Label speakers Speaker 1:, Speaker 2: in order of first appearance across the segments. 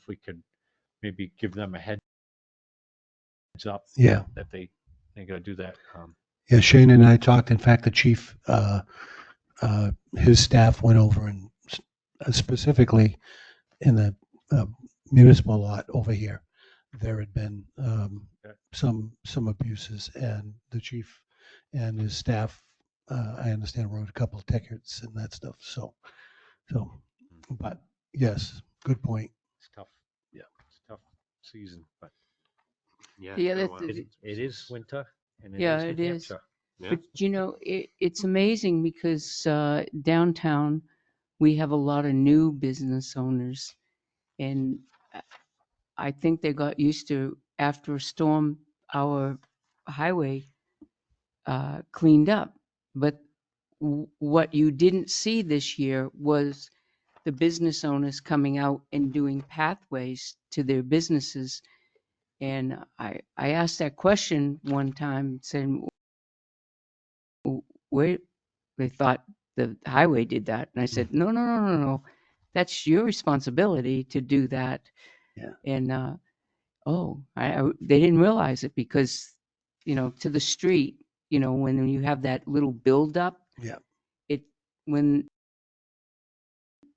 Speaker 1: if we could maybe give them a heads up
Speaker 2: Yeah.
Speaker 1: that they, they gotta do that. Um,
Speaker 2: Yeah, Shane and I talked. In fact, the chief, uh, uh, his staff went over and s- uh, specifically in the uh, municipal lot over here, there had been um,
Speaker 1: Okay.
Speaker 2: some, some abuses and the chief and his staff, uh, I understand, wrote a couple of tickets and that stuff. So, so, but yes, good point.
Speaker 1: it's tough.
Speaker 2: Yeah.
Speaker 1: It's a tough season, but
Speaker 3: The other
Speaker 1: it,
Speaker 3: thing,
Speaker 1: it is winter and it is.
Speaker 3: Yeah,
Speaker 1: New
Speaker 3: it is.
Speaker 1: Hampshire.
Speaker 3: but you know, it, it's amazing because uh, downtown, we have a lot of new business owners. And I- I think they got used to, after a storm, our highway uh, cleaned up. But w- what you didn't see this year was the business owners coming out and doing pathways to their businesses. And I, I asked that question one time, saying, where they thought the highway did that.
Speaker 2: Hmm.
Speaker 3: And I said, no, no, no, no, no. That's your responsibility to do that.
Speaker 2: Yeah.
Speaker 3: And, uh, oh, I, I- they didn't realize it because, you know, to the street, you know, when you have that little buildup.
Speaker 2: Yeah.
Speaker 3: It, when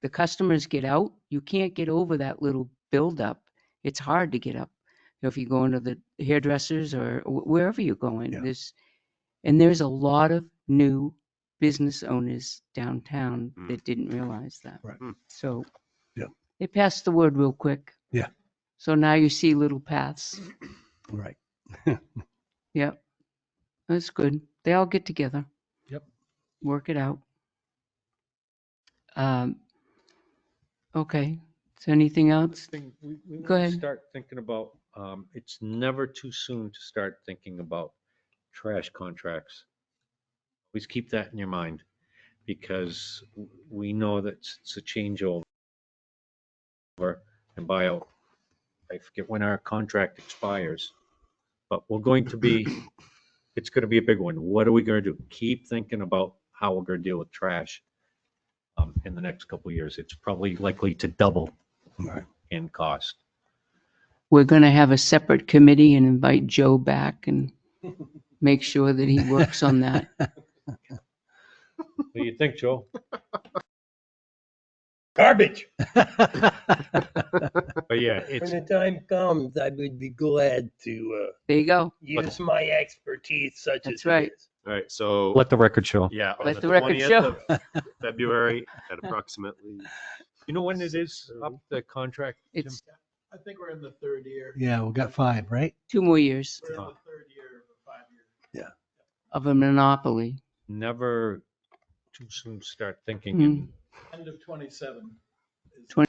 Speaker 3: the customers get out, you can't get over that little buildup. It's hard to get up. You know, If you go into the hairdressers or wh- wherever you're going,
Speaker 2: Yeah.
Speaker 3: there's, and there's a lot of new business owners downtown
Speaker 1: Mm.
Speaker 3: that didn't realize that.
Speaker 2: Right.
Speaker 1: Mm.
Speaker 3: So.
Speaker 2: Yep.
Speaker 3: They passed the word real quick.
Speaker 2: Yeah.
Speaker 3: So now you see little paths.
Speaker 2: Right.
Speaker 3: Yep. That's good. They all get together.
Speaker 1: Yep.
Speaker 3: Work it out. Um. Okay. So anything else?
Speaker 1: Thing, we, we
Speaker 3: Go
Speaker 1: wanna
Speaker 3: ahead.
Speaker 1: start thinking about, um, it's never too soon to start thinking about trash contracts. Always keep that in your mind because w- we know that it's it's a changeover and buyout. I forget when our contract expires, but we're going to be, it's going to be a big one. What are we going to do? Keep thinking about how we're going to deal with trash um, in the next couple of years. It's probably likely to double
Speaker 2: Right.
Speaker 1: in cost.
Speaker 3: We're going to have a separate committee and invite Joe back and make sure that he works on that.
Speaker 1: What do you think, Joe?
Speaker 4: Garbage.
Speaker 1: But yeah,
Speaker 4: When
Speaker 1: it's,
Speaker 4: the time comes, I would be glad to uh,
Speaker 3: There you go.
Speaker 4: use my expertise such
Speaker 3: That's
Speaker 4: as
Speaker 3: right.
Speaker 4: it is.
Speaker 5: All right, so,
Speaker 1: let the record show.
Speaker 5: yeah. on
Speaker 3: Let the record
Speaker 5: 20th
Speaker 3: show.
Speaker 5: of February at approximately,
Speaker 1: You know when it is uh, up the contract? Jim?
Speaker 3: It's
Speaker 6: I think we're in the third year.
Speaker 2: Yeah, we got five, right?
Speaker 3: two more years
Speaker 6: We're in
Speaker 1: Oh.
Speaker 6: the third year of a five-year.
Speaker 3: of a monopoly.
Speaker 1: Never too soon to start
Speaker 3: Hmm,
Speaker 1: thinking. and-
Speaker 6: End of twenty-seven. is-
Speaker 3: Twen-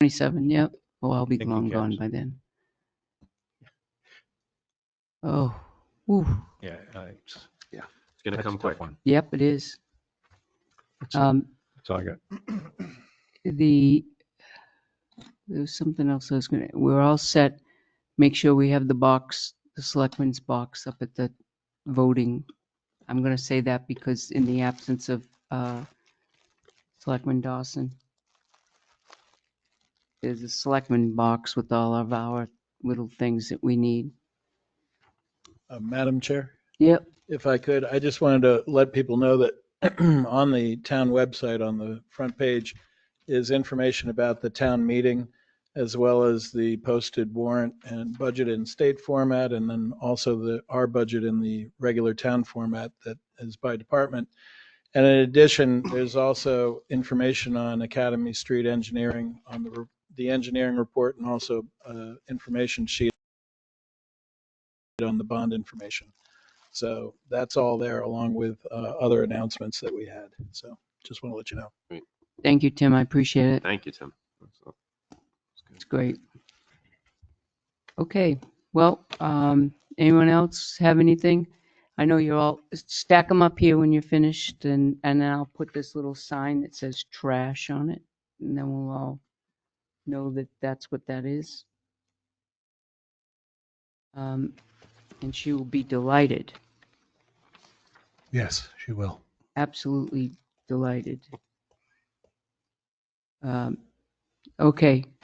Speaker 3: 27, yep. Oh, I'll be
Speaker 1: Thank you,
Speaker 3: long gone
Speaker 1: James.
Speaker 3: by then. Oh, whew,
Speaker 1: Yeah. uh, it's-
Speaker 5: it's going
Speaker 1: that's
Speaker 5: to
Speaker 1: a
Speaker 5: come
Speaker 1: tough
Speaker 5: quick.
Speaker 1: one.
Speaker 3: yep, it is. Um,
Speaker 1: That's all I got.
Speaker 3: the, there was something else I was gonna, we're all set. Make sure we have the box, the selectmen's box up at the voting. I'm gonna say that because in the absence of, uh, Selectman Dawson. There's a selectman box with all of our little things that we need.
Speaker 6: Uh, Madam Chair,
Speaker 3: Yep,
Speaker 6: if I could, I just wanted to let people know that on the town website, on the front page, is information about the town meeting as well as the posted warrant and budget in state format, and then also the, our budget in the regular town format that is by department. And in addition, there's also information on Academy Street Engineering on the, re- the engineering report and also uh, information sheet on the bond information. So that's all there along with uh, other announcements that we had. So just want to let you know.
Speaker 3: thank you, Tim, I appreciate it.
Speaker 5: Thank you, Tim. So-
Speaker 3: It's great. Okay, well, um, anyone else have anything? I know you're all, stack them up here when you're finished and, and then I'll put this little sign that says trash on it. And then we'll all know that that's what that is. Um, and she will be delighted,
Speaker 2: Yes, she will.
Speaker 3: absolutely delighted. Um, okay,